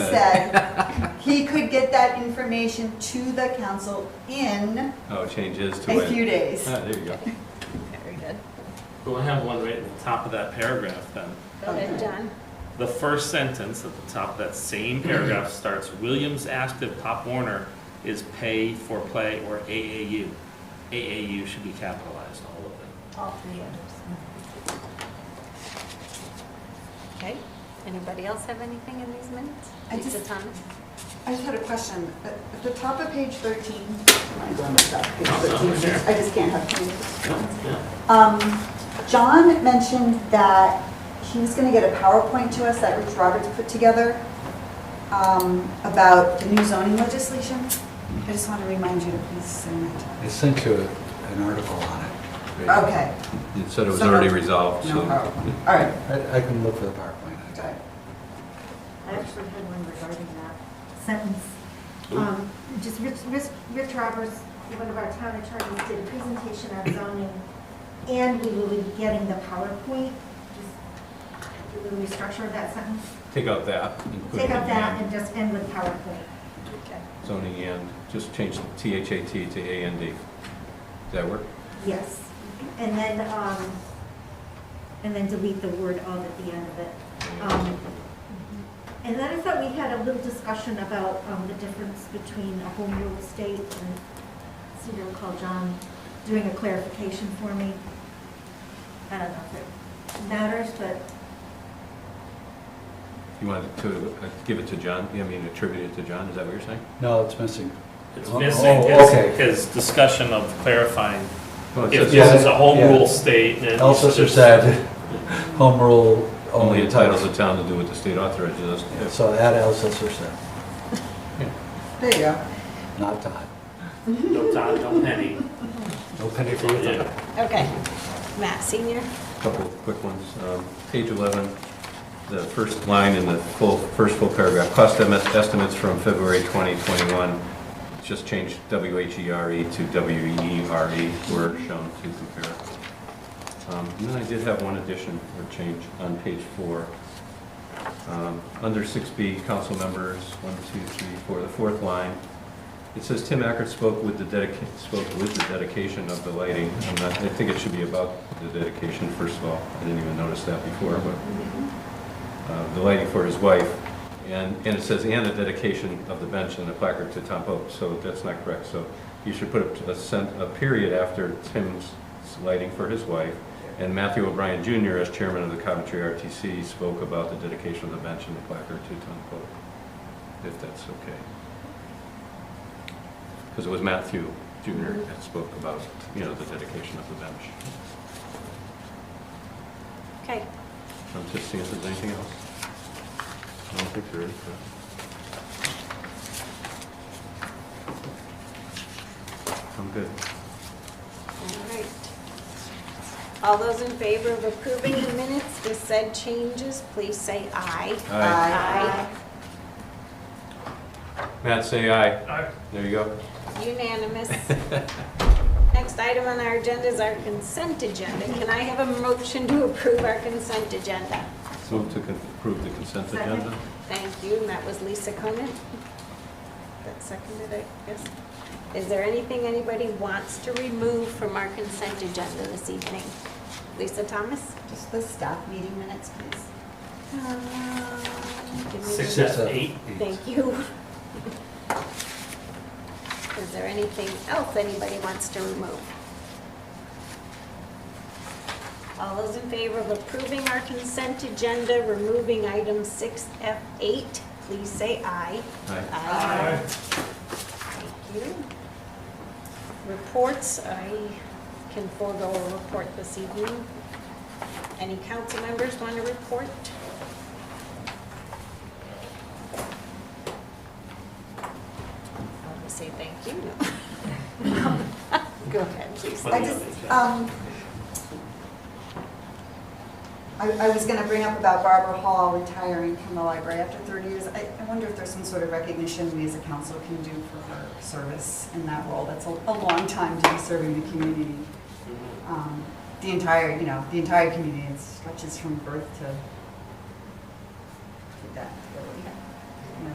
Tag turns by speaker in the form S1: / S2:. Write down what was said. S1: He could get that information to the council in
S2: Oh, changes to
S1: a few
S2: it.
S1: days.
S2: Ah, there you go.
S1: Very good.
S3: But I have one right at the top of that paragraph then.
S4: Go ahead, John.
S3: The first sentence at the top of that same paragraph starts, Williams asked if Pop Warner is pay for play or AAU. AAU should be capitalized, all of it.
S4: All three others. Okay, anybody else have anything in these minutes?
S1: I
S4: Lisa
S1: just-
S4: Thomas?
S1: I just had a question. At at the top of page 13, I'm going to stop page 13,
S3: Sure.
S1: I just can't have Um, John mentioned that he was gonna get a PowerPoint to us that Rich Roberts put together um, about the new zoning legislation. I just want to remind you to please send that.
S5: I sent you an article on it.
S1: to- Okay.
S2: It said it was
S1: So no-
S2: already resolved,
S1: No
S2: so.
S1: PowerPoint. All right.
S5: I, I can look for the PowerPoint.
S1: Okay.
S6: I actually had one regarding that sentence. Um, Just Rich, Rich Rich Roberts, one of our town attorneys, did a presentation on zoning, and we will be getting the PowerPoint. Just Do the restructure of that sentence.
S2: Take out that. include
S6: Take out
S2: it and
S6: that and just end with PowerPoint.
S2: Zoning and, just change the T-H-A-T to A-N-D. Does that work?
S6: Yes. And then, um, and then delete the word of at the end of it. Um, And then I thought we had a little discussion about um, the difference between a home rule estate and, so you'll call John doing a clarification for me. I don't know if it matters, but
S2: You wanted to uh, give it to John, I mean attribute it to John, is that what you're saying?
S5: No, it's missing.
S3: It's
S5: Oh,
S3: missing
S5: oh,
S3: his,
S5: okay.
S3: his discussion of clarifying
S2: Well, it
S3: if
S2: says
S3: this
S5: yeah,
S3: is a home
S5: yeah.
S3: rule state and.
S5: Elsesser said, home rule
S2: Only
S5: only.
S2: entitles the town to do what the state authorizes us to
S5: Yeah,
S2: do.
S5: So add Elsesser said,
S1: There you go.
S5: not Todd.
S3: No Todd, no penny.
S5: No penny for you.
S3: Yeah.
S4: Okay, Matt Senior?
S2: Couple of quick ones. Um, Page 11, the first line in the full, first full paragraph, cost em- estimates from February 2021, just change W-H-E-R-E E to W-E-R-E, E. were shown to compare. Um, And then I did have one addition or change on page four. Um, Under 6B, council members, one, two, three, four, the fourth line, it says Tim Ackert spoke with the dedication, spoke with the dedication of the lighting. I'm not, I think it should be about the dedication, first of all. I didn't even notice that before, but, uh, the lighting for his wife. And, and it says, and the dedication of the bench and the placard to Tom Pope, so that's not correct. So you should put a sent, a period after Tim's lighting for his wife. And Matthew O'Brien Jr., as chairman of the Coventry RTC, spoke about the dedication of the bench and the placard to Tom Pope, if that's okay. Because it was Matthew Jr. that spoke about, you know, the dedication of the bench.
S4: Okay,
S2: I'm just seeing if there's anything else. I don't think there is. but- I'm good.
S4: all right. All those in favor of approving the minutes with said changes, please say aye.
S2: Aye.
S4: Aye.
S2: Matt, say aye. There you go.
S4: Unanimous. Next item on our agenda is our consent agenda. Can I have a motion to approve our consent agenda?
S2: So move to con- approve the consent
S6: Second.
S2: agenda.
S4: Thank you, and that was Lisa Conan. That seconded it, yes. Is there anything anybody wants to remove from our consent agenda this evening? Lisa Thomas?
S1: Just the staff meeting minutes, please.
S4: Give me-
S3: Six F eight.
S4: Thank you. Is there anything else anybody wants to remove? All those in favor of approving our consent agenda, removing item 6F8, please say aye.
S2: Aye.
S4: Aye. Thank you. Reports, I can forego a report this evening. Any council members want to report? I want to say thank you. No. Go ahead, please.
S1: I just, um, I, I was gonna bring up about Barbara Hall retiring from the library after thirty years. I, I wonder if there's some sort of recognition we as a council can do for her service in that role. That's a, a long time to be serving the community. Um, The entire, you know, the entire community, it stretches from birth to, to death.